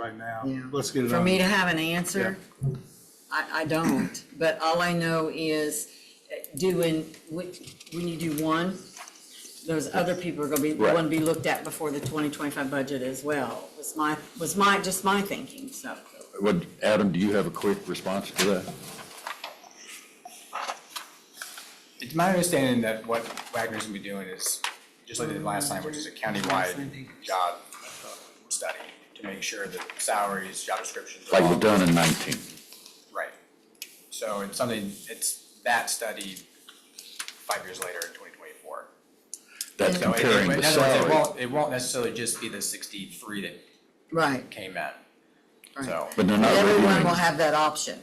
right now. Yeah. Let's get it For on. me to have an answer, I, I don't, but all I know is uh, doing, when when you do one, those other people are gonna be, Right. wanna be looked at before the twenty twenty-five budget as well, was my, was my, just my thinking, so. What, Adam, do you have a quick response to that? It's my understanding that what Wagner's gonna be doing is, just like they did last time, which is a countywide job uh, study to make sure that salaries, job descriptions are Like all we've done in 19? right. So it's something, it's that study five years later in twenty twenty-four. That's So it- it- comparing the in other words, it salary. won't, it won't necessarily just be the sixty-three that Right, came in, right. so. But they're not Everyone will reviewing, have that option.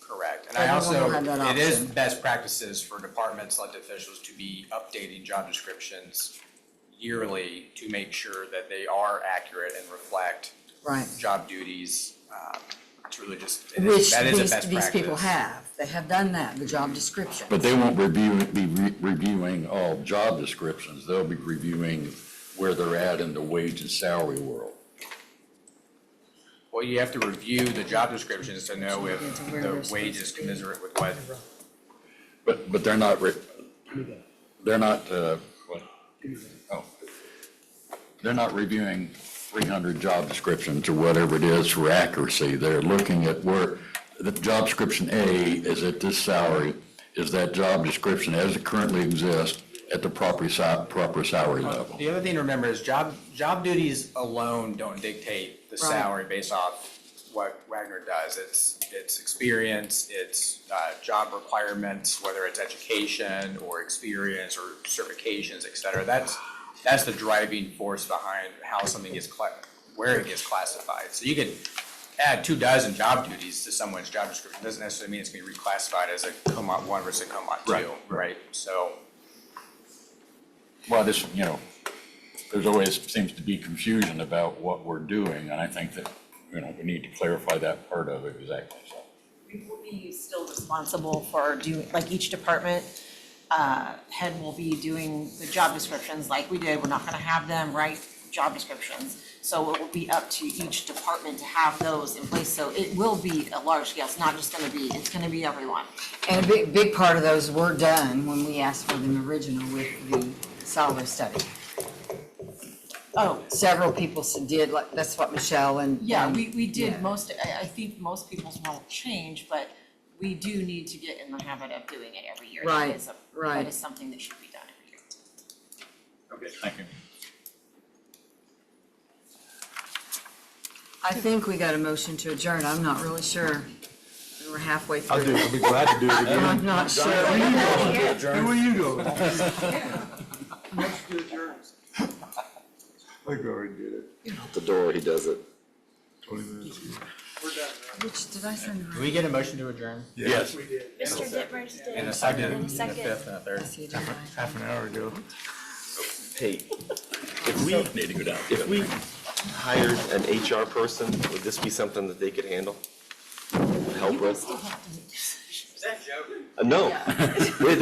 Correct, and So I everyone will also, have that it is option. best practices for departments, elected officials to be updating job descriptions yearly to make sure that they are accurate and reflect Right. job duties, um, it's really just, it is- Which that is a best these, practice. these people have, they have done that, the job description. but they won't review, be re- reviewing all job descriptions. They'll be reviewing where they're at in the wage and salary world. Well, you have to review the job descriptions to know if Yeah, to where we're the supposed wage is to be. commensurate with what, But, but they're not, re- they're not, uh, what? Oh. They're not reviewing 300 job descriptions or whatever it is for accuracy. They're looking at where, the job description A is at this salary. Is that job description as it currently exists at the proper sa, proper salary level? The other thing to remember is job, job duties alone don't dictate the Right. salary based off what Wagner does. It's, it's experience, it's, uh, job requirements, whether it's education or experience or certifications, et cetera. That's, that's the driving force behind how something gets cla, where it gets classified. So you could add two dozen job duties to someone's job description. Doesn't necessarily mean it's gonna be reclassified as a COMAT one versus a COMAT Right, two, right? So. Well, this, you know, there's always seems to be confusion about what we're doing, and I think that, you know, we need to clarify that part of it exactly, so. We will be still responsible for doing, like each department uh, head will be doing the job descriptions like we did. We're not gonna have them write job descriptions. So it will be up to each department to have those in place. So it will be a large scale. It's not just gonna be, it's gonna be everyone. And a big, big part of those were done when we asked for them original with the solar study. Oh, Several people s- did, like, that's what Michelle and. yeah, we, we Yeah. did most, I, I think most people's won't change, but we do need to get in the habit of doing it every year. That Right, is a- right. That is something that should be done every year. Okay, thank you. I think we got a motion to adjourn, I'm not really sure. And We're halfway through. I'll do it. I'll be glad to do it again. I'm not sure. Hey, Where you going? Let's do yours. I think I already did it. the door, he does it. Twenty minutes. Which, did I send the Do we get a motion to adjourn? Yes. Mr. Dittmers did. And a second, And and a a second. fifth, and a third. right? You did, right? Half an hour ago. Hey, If we need to go down. if we hired an HR person, would this be something that they could handle? Help with? Is that joking? No. They-